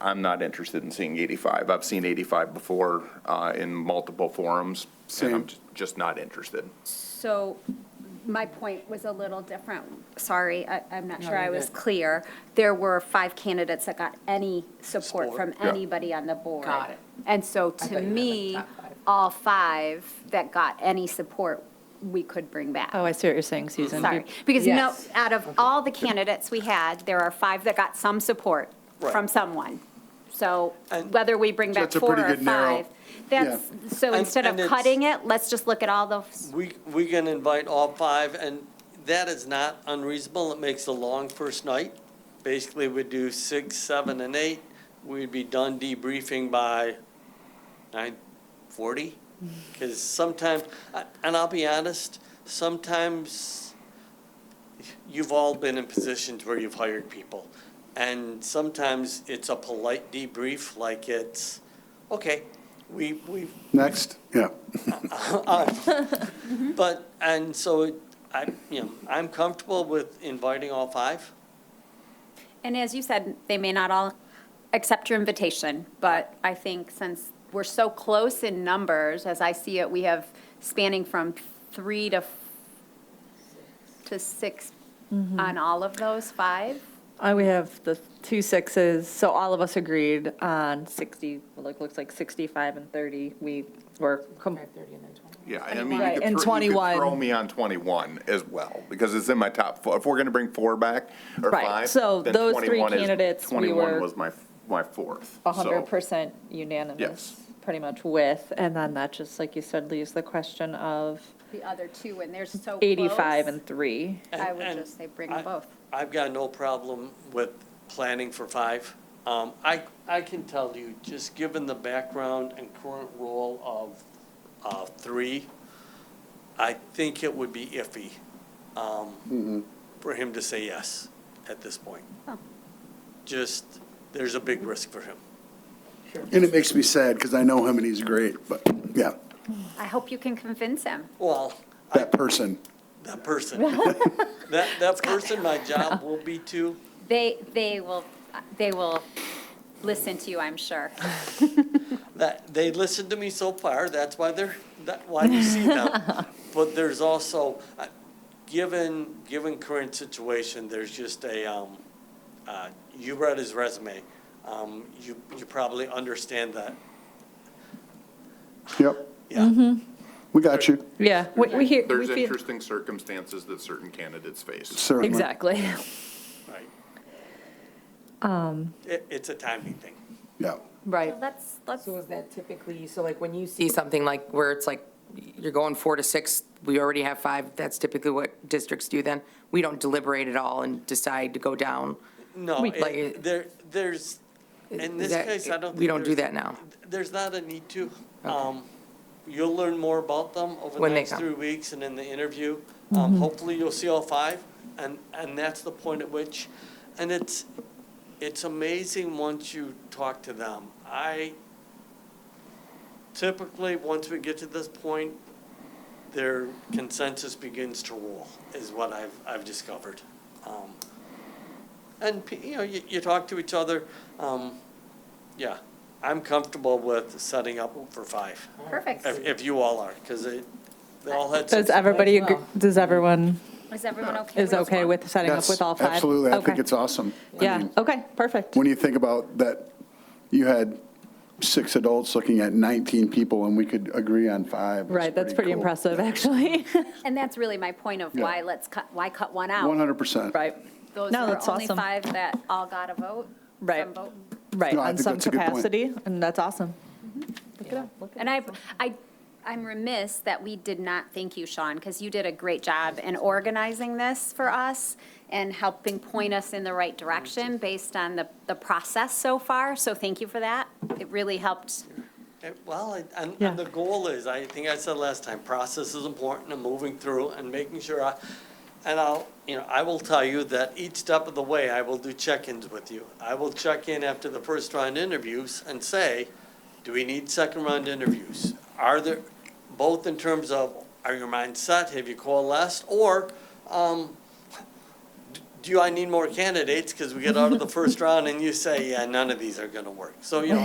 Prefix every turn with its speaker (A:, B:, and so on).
A: I'm not interested in seeing 85. I've seen 85 before uh, in multiple forums, and I'm
B: Same.
A: j- just not interested.
C: So my point was a little different. Sorry, I, I'm not
D: No,
C: sure I
D: you're
C: was
D: good.
C: clear. There were five candidates that got any support
D: Support.
C: from
A: Yeah.
C: anybody on the board.
D: Got it.
C: And so
D: I
C: to
D: thought you meant like
C: me,
D: top five.
C: all five that got any support, we could bring back.
E: Oh, I see what you're saying, Susan.
C: Sorry, because no,
D: Yes.
C: out of all the candidates we had, there are five that got some support from
B: Right.
C: someone. So
F: And-
C: whether we bring back
B: That's a
C: four
B: pretty
C: or
B: good narrow-
C: five, that's, so
F: And-
C: instead of
F: and it's-
C: cutting it, let's just look at all those.
F: We, we can invite all five, and that is not unreasonable. It makes a long first night. Basically, we do six, seven, and eight. We'd be done debriefing by nine forty. Because sometimes, I- and I'll be honest, sometimes you've all been in positions where you've hired people. And sometimes it's a polite debrief, like it's, okay, we, we
B: Next, yeah.
F: But, and so it- I, you know, I'm comfortable with inviting all five.
C: And as you said, they may not all accept your invitation, but I think since we're so close in numbers, as I see it, we have spanning from three to, f- to six
E: Mm-hmm.
C: on all of those five.
E: Uh, we have the two sixes, so all of us agreed on 60, well, it looks like 65 and 30. We were, com-
D: Five thirty and then twenty.
A: Yeah, I mean, you
E: Right,
A: could
E: and
A: throw- you could
E: 21.
A: throw me on 21 as well, because it's in my top four. If we're going to bring four back, or
E: Right,
A: five,
E: so
A: then
E: those three
A: 21 is-
E: candidates, we
A: 21
E: were-
A: was my, my fourth. so-
E: 100% unanimous,
A: Yes.
E: pretty much with. And then that just, like you said, leaves the question of
C: The other two, and they're so close.
E: 85 and 3.
C: I
F: And-
C: would
F: and
C: just say bring 'em
F: I-
C: both.
F: I've got no problem with planning for five. Um, I, I can tell you, just given the background and current role of, uh, three, I think it would be iffy, um, for him to say yes at this point.
C: Oh.
F: Just, there's a big risk for him.
B: And it makes me sad because I know him and he's great, but yeah,
C: I hope you can convince him.
F: Well, I,
B: that person.
F: that person, that, that person, my job will be to
C: They, they will, they will listen to you, I'm sure.
F: That, they listened to me so far, that's why they're, that, why you see them. But there's also, uh, given, given current situation, there's just a, um, uh, you read his resume. Um, you, you probably understand that,
B: Yep,
D: Mm-hmm.
F: yeah.
B: we got you,
E: Yeah, we we hear, we
A: There's
E: feel,
A: interesting circumstances that certain candidates face.
B: certainly.
E: exactly.
F: Right. Um. It, it's a timing thing.
B: Yeah,
E: Right.
C: Let's, let's,
D: So is that typically, so like when you see something like where it's like, you're going four to six, we already have five, that's typically what districts do then? We don't deliberate at all and decide to go down?
F: No,
E: We-
F: it-
D: Like-
F: there, there's, in this
D: That-
F: case, I don't.
D: We
F: think
D: don't do
F: there's-
D: that now.
F: There's not a need to. Um, You'll learn more about them over the
D: When they
F: next
D: come. Mm-hmm.
F: three weeks and in the interview. Um, Hopefully, you'll see all five, and, and that's the point at which, and it's, it's amazing once you talk to them. I typically, once we get to this point, their consensus begins to rule, is what I've, I've discovered. Um, And, pe- you know, you, you talk to each other, um, yeah, I'm comfortable with setting up for five,
C: perfect.
F: if, if you all are, because they, they all had.
E: Does
F: some-
E: everybody, agree-
D: well.
E: does everyone,
C: Is everyone okay?
E: is
C: with-
E: okay with setting up
B: that's,
E: with all five?
B: absolutely, I think
E: Okay.
B: it's awesome. I
E: Yeah,
B: mean,
E: okay, perfect.
B: When you think about that, you had six adults looking at 19 people and we could agree on five. It's
E: Right, that's pretty
B: cool.
E: impressive, actually.
C: And that's really my point of
B: Yeah.
C: why let's cut, why cut one out?
B: 100%.
E: Right,
C: Those
E: No,
C: are
E: that's
C: only
E: awesome.
C: five that all got a vote. some
E: Right.
C: vote.
E: right,
B: No, I
E: on
B: think
E: some
B: that's a good point.
E: capacity, and that's awesome.
C: And I, I, I'm remiss that we did not thank you, Sean, because you did a great job in organizing this for us and helping point us in the right direction based on the, the process so far. So thank you for that. It really helped.
F: Eh, Well, I- and,
E: Yeah.
F: and the goal is, I think I said last time, process is important and moving through and making sure I, and I'll, you know, I will tell you that each step of the way, I will do check-ins with you. I will check in after the first round interviews and say, do we need second round interviews? Are there, both in terms of, are your minds set, have you coalesced, or, um, d- do I need more candidates? Because we get out of the first round and you say, yeah, none of these are going to work. So, you know,